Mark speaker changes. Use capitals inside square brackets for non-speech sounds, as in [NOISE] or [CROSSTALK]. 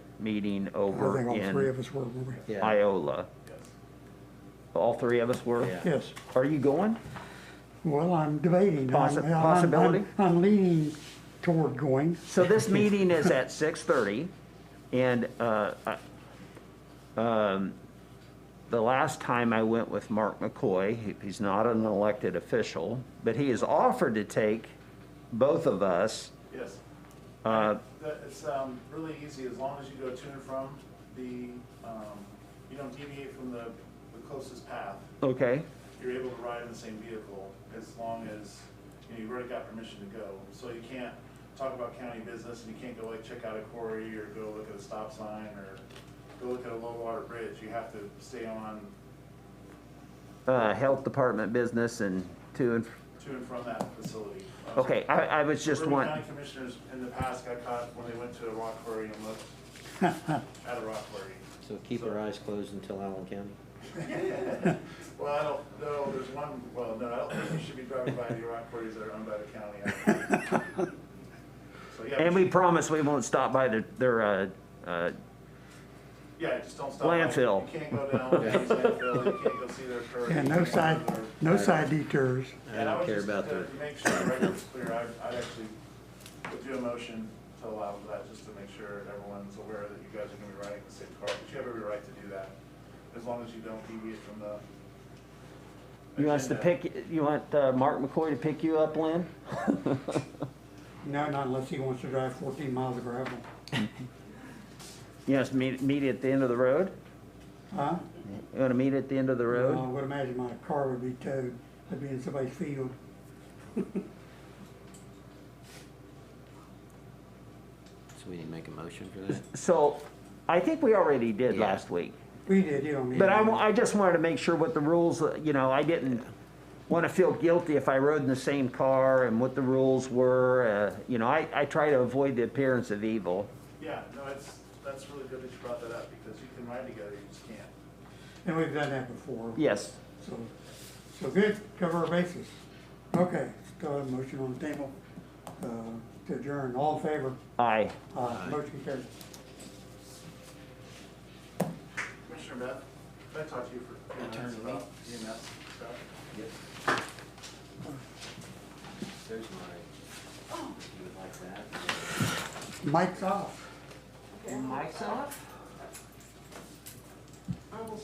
Speaker 1: meeting
Speaker 2: I
Speaker 1: over
Speaker 2: think all three
Speaker 1: in
Speaker 2: of us were, were we?
Speaker 3: Yeah,
Speaker 1: Iola. All three of us were?
Speaker 3: Yeah.
Speaker 2: Yes.
Speaker 1: Are you going?
Speaker 2: Well, I'm debating. I'm-
Speaker 1: Possi-
Speaker 2: I'm- I'm-
Speaker 1: possibility?
Speaker 2: I'm leaning toward going.
Speaker 1: So this meeting is at [LAUGHS] six thirty, and, uh, I- um, the last time I went with Mark McCoy, he- he's not an elected official, but he has offered to take both of us.
Speaker 4: Yes.
Speaker 1: Uh,
Speaker 4: That- It's um, really easy, as long as you go to and from the, um, you don't deviate from the the closest path.
Speaker 1: okay,
Speaker 4: You're able to ride in the same vehicle as long as, you know, you already got permission to go. So you can't talk about county business and you can't go like check out a quarry or go look at a stop sign or go look at a low water bridge. You have to stay on
Speaker 1: uh, health department business and to and, fr-
Speaker 4: to and from that facility. Um,
Speaker 1: okay, I, I was just
Speaker 4: Bourbon
Speaker 1: wanting,
Speaker 4: County commissioners in the past got caught when they went to a rock quarry and
Speaker 1: [LAUGHS]
Speaker 4: looked at a rock quarry.
Speaker 3: so keep our eyes closed until Allen County.
Speaker 4: Well, I don't know, there's one, well, no, I don't think you should be driving by the rock quarries that are owned by the county. I don't think.
Speaker 1: [LAUGHS]
Speaker 4: So, yeah,
Speaker 1: and we promise we won't stop by their, their, uh, uh,
Speaker 4: Yeah, just don't stop. by.
Speaker 1: Landfill.
Speaker 4: You can't go down, you can't go see their curry.
Speaker 2: And no side, no side detours.
Speaker 3: I don't care about
Speaker 4: the.
Speaker 3: the,
Speaker 4: To make sure the record's clear, I- I'd actually would do a motion to allow for that, just to make sure everyone's aware that you guys are gonna be riding the same car. But you have every right to do that, as long as you don't deviate from the.
Speaker 1: you want us to
Speaker 4: agenda.
Speaker 1: pick, you want, uh, Mark McCoy to pick you up, Lynn?
Speaker 2: No, not unless he wants to drive fourteen miles of gravel.
Speaker 1: You want us to meet, meet at the end of the road?
Speaker 2: Huh?
Speaker 1: You wanna meet at the end of the road?
Speaker 2: Well, I would imagine my car would be towed. I'd be in somebody's field.
Speaker 3: so we need to make a motion for [LAUGHS] that?
Speaker 1: So, I think we already did
Speaker 3: Yeah.
Speaker 1: last week,
Speaker 2: We did, you don't need.
Speaker 1: but I,
Speaker 2: to.
Speaker 1: wa- I just wanted to make sure what the rules, uh, you know, I didn't wanna feel guilty if I rode in the same car and what the rules were, uh, you know, I, I try to avoid the appearance of evil.
Speaker 4: Yeah, no, it's, that's really good that you brought that up, because you can ride together, you just can't.
Speaker 2: And we've done that before.
Speaker 1: Yes,
Speaker 2: So, so good, cover our bases. Okay, still have a motion on the table, uh, to adjourn, all in favor?
Speaker 1: aye.
Speaker 2: Uh, motion carried.
Speaker 4: Commissioner Beth, can I talk to you for a few minutes
Speaker 3: Attorney Lee?
Speaker 4: about EMS stuff?
Speaker 3: There's my, you would like that?
Speaker 2: Mike's off.
Speaker 1: Mike's off?